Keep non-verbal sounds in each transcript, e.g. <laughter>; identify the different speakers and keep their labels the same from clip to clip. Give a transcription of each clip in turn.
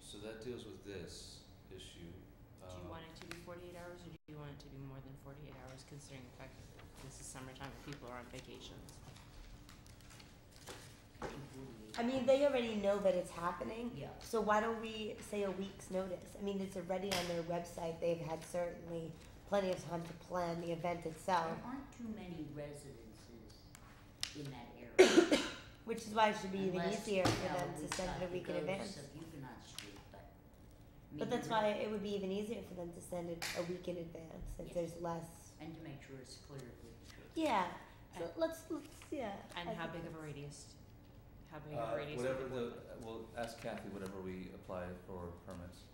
Speaker 1: so that deals with this issue.
Speaker 2: Do you
Speaker 1: Um,
Speaker 2: want it to be forty-eight hours, or do you want it to be more than forty-eight hours, considering the fact that this is summertime and people are on vacations?
Speaker 3: I mean, they already know that it's happening.
Speaker 2: Yeah.
Speaker 3: So why don't we say a week's notice? I mean, it's already on their website. They've had certainly plenty of time to plan the event itself,
Speaker 4: There aren't too many residences in that
Speaker 3: <coughs>
Speaker 4: area.
Speaker 3: which is why it should be even
Speaker 4: unless,
Speaker 3: easier
Speaker 4: you
Speaker 3: for
Speaker 4: know,
Speaker 3: them
Speaker 4: we've
Speaker 3: to send
Speaker 4: got
Speaker 3: it a
Speaker 4: the
Speaker 3: week in
Speaker 4: ghosts
Speaker 3: advance.
Speaker 4: of Huguenot Street, but. I mean,
Speaker 3: But that's
Speaker 4: we're-
Speaker 3: why it would be even easier for them to send it a week in advance if
Speaker 4: Yeah.
Speaker 3: there's less.
Speaker 4: And to make sure it's clear.
Speaker 3: Yeah. So
Speaker 2: And-
Speaker 3: let's let's yeah.
Speaker 2: And
Speaker 3: I
Speaker 2: how
Speaker 3: think
Speaker 2: big of a
Speaker 3: that's-
Speaker 2: radius? How big of
Speaker 1: Uh,
Speaker 2: a radius? would
Speaker 1: whatever
Speaker 2: it
Speaker 1: the,
Speaker 2: work with?
Speaker 1: we'll ask Kathy whatever we apply for permits.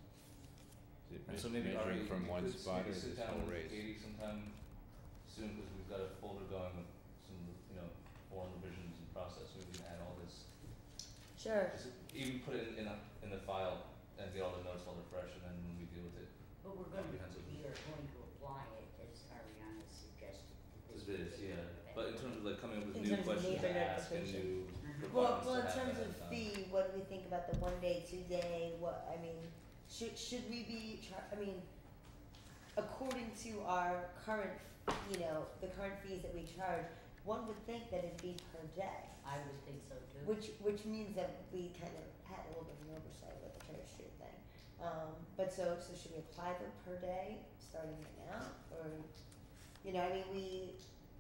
Speaker 5: Is it me-
Speaker 1: And so maybe
Speaker 5: measuring
Speaker 1: Ari, you
Speaker 5: from one
Speaker 1: could
Speaker 5: spot
Speaker 1: maybe
Speaker 5: or
Speaker 1: sit
Speaker 5: this
Speaker 1: down
Speaker 5: whole
Speaker 1: with
Speaker 5: race?
Speaker 1: Katie sometime soon, cause we've got a folder going with some, you know, form revisions and process, maybe we can add all this.
Speaker 3: Sure.
Speaker 1: Just even put it in a, in the file and get all the notes while they're fresh and then when we deal with it,
Speaker 4: But we're gonna,
Speaker 1: Comprehensive.
Speaker 4: we are going to apply it as Ariana suggested. to
Speaker 1: as
Speaker 4: this
Speaker 1: it is,
Speaker 4: particular
Speaker 1: yeah.
Speaker 4: event.
Speaker 1: But in terms of like coming up with
Speaker 3: In
Speaker 1: new
Speaker 3: terms of
Speaker 1: questions to
Speaker 3: neighbor
Speaker 1: ask and
Speaker 3: notification.
Speaker 1: new
Speaker 4: Mhm.
Speaker 3: Well,
Speaker 1: requirements
Speaker 3: well,
Speaker 1: to
Speaker 3: in
Speaker 1: have
Speaker 3: terms
Speaker 1: ahead
Speaker 3: of
Speaker 1: time.
Speaker 3: fee, what do we think about the one day, two day, what, I mean, should, should we be, char- I mean, according to our current, you know, the current fees that we charge, one would think that it'd be per day,
Speaker 4: I would think so too.
Speaker 3: which, which means that we kind of had a little bit of an oversight with the Church Street thing. Um, but so, so should we apply them per day, starting right now, or, you know, I mean, we,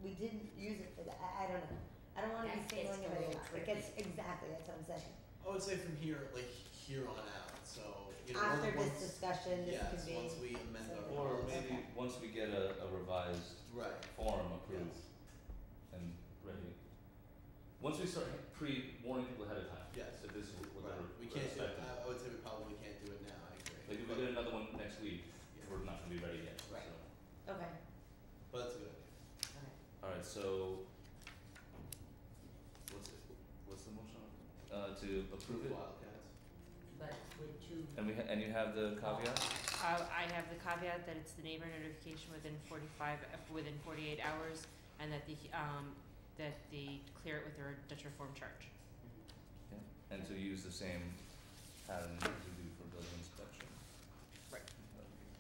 Speaker 3: we didn't use it for that, I, I don't know. I don't wanna
Speaker 4: That
Speaker 3: be singling
Speaker 4: gets a
Speaker 3: anybody
Speaker 4: little
Speaker 3: out, it
Speaker 4: tricky.
Speaker 3: gets, exactly, that's what I'm saying.
Speaker 6: I would say from here, like here on out. So you know,
Speaker 3: after
Speaker 6: once,
Speaker 3: this discussion, this
Speaker 6: yes,
Speaker 3: could be.
Speaker 6: once we amend our
Speaker 3: something.
Speaker 1: Or
Speaker 6: policy.
Speaker 1: maybe once we get a, a revised
Speaker 6: right,
Speaker 1: form approved
Speaker 6: yes,
Speaker 1: and ready. Once we start pre warning people ahead of time.
Speaker 6: Yes.
Speaker 1: That this is what
Speaker 6: right.
Speaker 1: they're
Speaker 6: We
Speaker 1: we're
Speaker 6: can't do.
Speaker 1: expecting.
Speaker 6: I, I would say we probably can't do it now. I agree.
Speaker 1: Like if we
Speaker 6: but,
Speaker 1: get another one next week,
Speaker 6: yeah,
Speaker 1: we're not gonna be ready yet, so.
Speaker 6: Right.
Speaker 3: Okay.
Speaker 6: but that's a good. idea.
Speaker 4: Alright.
Speaker 1: Alright, so what's it, what's the motion? Uh to approve it?
Speaker 6: Wildcats.
Speaker 4: But with two,
Speaker 1: And we ha- and you have the caveat?
Speaker 2: Uh, I have the caveat that it's the neighbor notification within forty-five, uh, within forty-eight hours, and that the, um, that they clear it with their Dutch reform charge.
Speaker 1: And to use the same pattern as we do for building inspection.
Speaker 2: Right.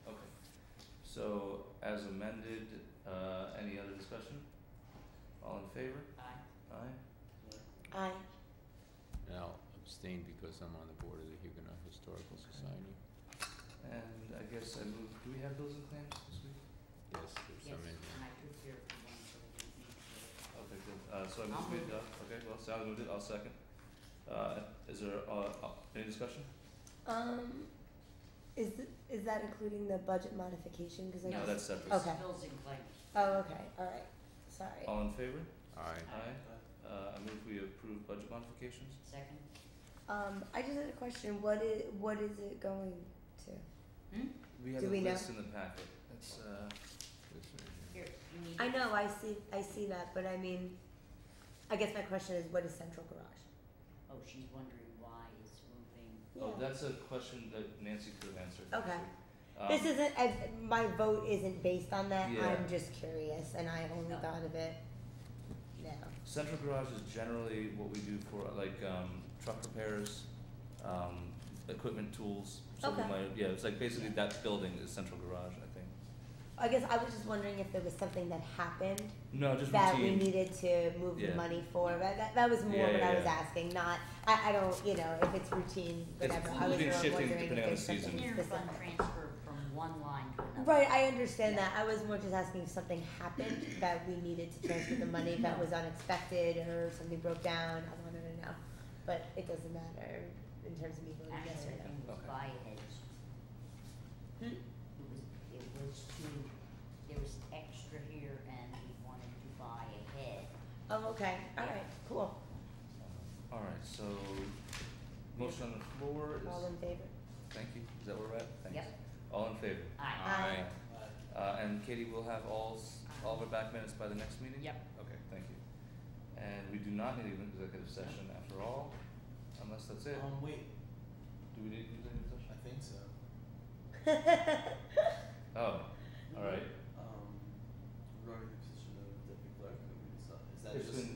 Speaker 1: Okay. So as amended, uh any other discussion? All in favor?
Speaker 4: I,
Speaker 1: Aye.
Speaker 3: I
Speaker 5: And I'll abstain because I'm on the board of the Huguenot Historical Society.
Speaker 1: And I guess I move, do we have bills and claims this week?
Speaker 5: Yes, there's
Speaker 4: yes,
Speaker 5: some in
Speaker 4: and
Speaker 5: there.
Speaker 4: I took care of the one, so we can make sure.
Speaker 1: Okay, good. Uh, so I
Speaker 4: I'll
Speaker 1: moved
Speaker 4: move
Speaker 1: made that. Okay, well, Sally moved it. I'll second. Uh, is there, uh, uh, any discussion?
Speaker 3: um, is th- is that including the budget modification? Because I
Speaker 1: No,
Speaker 3: guess-
Speaker 1: that's separate.
Speaker 3: Okay.
Speaker 4: Bills and claims.
Speaker 3: Oh, okay. All right. Sorry.
Speaker 1: All in favor?
Speaker 5: Aye.
Speaker 1: Aye. Uh, I move we approve budget modifications.
Speaker 4: Second,
Speaker 3: Um, I just had a question. What is what is it going to?
Speaker 1: We have
Speaker 3: Do
Speaker 1: a
Speaker 3: we know?
Speaker 1: list in the packet. That's, uh,
Speaker 5: This right here.
Speaker 4: here, you need.
Speaker 3: I know. I see. I see that. But I mean, I guess my question is, what is central garage?
Speaker 4: Oh, she's wondering why it's moving.
Speaker 1: oh, that's a question that Nancy could have answered.
Speaker 3: Okay.
Speaker 1: Um,
Speaker 3: this isn't. I, my vote isn't based on that.
Speaker 1: Yeah.
Speaker 3: I'm just curious, and I only
Speaker 4: No.
Speaker 3: thought of it now.
Speaker 1: Central garage is generally what we do for like um truck repairs, um equipment tools, so we
Speaker 3: Okay.
Speaker 1: might- yeah, it's like basically that building is central garage, I think.
Speaker 3: I guess I was just wondering if there was something that happened
Speaker 1: No, just
Speaker 3: that we
Speaker 1: routine.
Speaker 3: needed to move
Speaker 1: Yeah.
Speaker 3: the money for. That, that, that was more
Speaker 1: Yeah,
Speaker 3: what
Speaker 1: yeah,
Speaker 3: I was
Speaker 1: yeah.
Speaker 3: asking, not, I, I don't, you know, if it's routine,
Speaker 1: It's
Speaker 3: whatever. I was
Speaker 1: been
Speaker 3: more
Speaker 1: shifting
Speaker 3: wondering if
Speaker 1: depending on
Speaker 3: there's
Speaker 1: the
Speaker 3: something
Speaker 1: season.
Speaker 4: Here, fund
Speaker 3: specific.
Speaker 4: transfer from one line to another.
Speaker 3: Right, I understand
Speaker 4: Yeah.
Speaker 3: that. I was more just asking if something happened that we needed to transfer the money that was unexpected or something broke down. I wanted to know. But it doesn't matter in terms of me voting yes
Speaker 4: Actually,
Speaker 3: or
Speaker 4: I think it was
Speaker 1: Okay.
Speaker 4: by heads.
Speaker 3: Hmm?
Speaker 4: It was, it was to, there was extra here and we wanted to buy a head.
Speaker 3: no. Oh, okay. All right, cool.
Speaker 1: Alright, so motion on the floor
Speaker 3: All
Speaker 1: is,
Speaker 3: in favor?
Speaker 1: thank you, is that where we're at? Thanks.
Speaker 4: Yep.
Speaker 1: All in favor?
Speaker 4: Aye.
Speaker 3: Aye.
Speaker 6: Uh,
Speaker 1: Uh and Katie will have all s- all of our back minutes by the next meeting?
Speaker 2: Yep.
Speaker 1: Okay, thank you. And we do not need an executive session after all, unless that's it.
Speaker 6: Um, wait,
Speaker 1: Do we need an executive
Speaker 6: I
Speaker 1: session?
Speaker 6: think so.
Speaker 1: Oh, alright.
Speaker 6: Um, regarding the position of deputy clerk, I mean, it's not, is that
Speaker 1: It's
Speaker 6: just Oh,
Speaker 1: been